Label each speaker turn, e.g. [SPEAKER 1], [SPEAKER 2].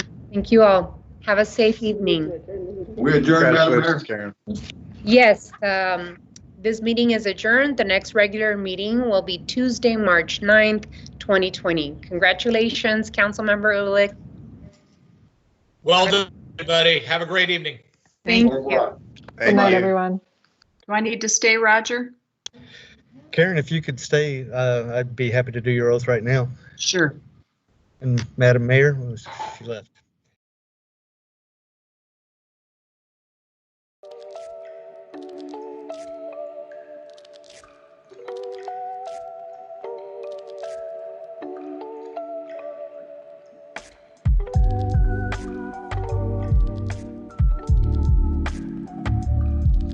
[SPEAKER 1] Thank you all. Have a safe evening.
[SPEAKER 2] We adjourn, Madam Mayor.
[SPEAKER 3] Karen.
[SPEAKER 1] Yes, um, this meeting is adjourned. The next regular meeting will be Tuesday, March 9th, 2020. Congratulations, Councilmember Ulick.
[SPEAKER 4] Well done, everybody. Have a great evening.
[SPEAKER 5] Thank
[SPEAKER 2] Or
[SPEAKER 1] you.
[SPEAKER 2] what?
[SPEAKER 3] Thank
[SPEAKER 2] night,
[SPEAKER 3] you.
[SPEAKER 5] everyone. Do I need to stay, Roger?
[SPEAKER 6] Karen, if you could stay, uh, I'd be happy to do your oath right now.
[SPEAKER 5] Sure.
[SPEAKER 6] And Madam Mayor, she left.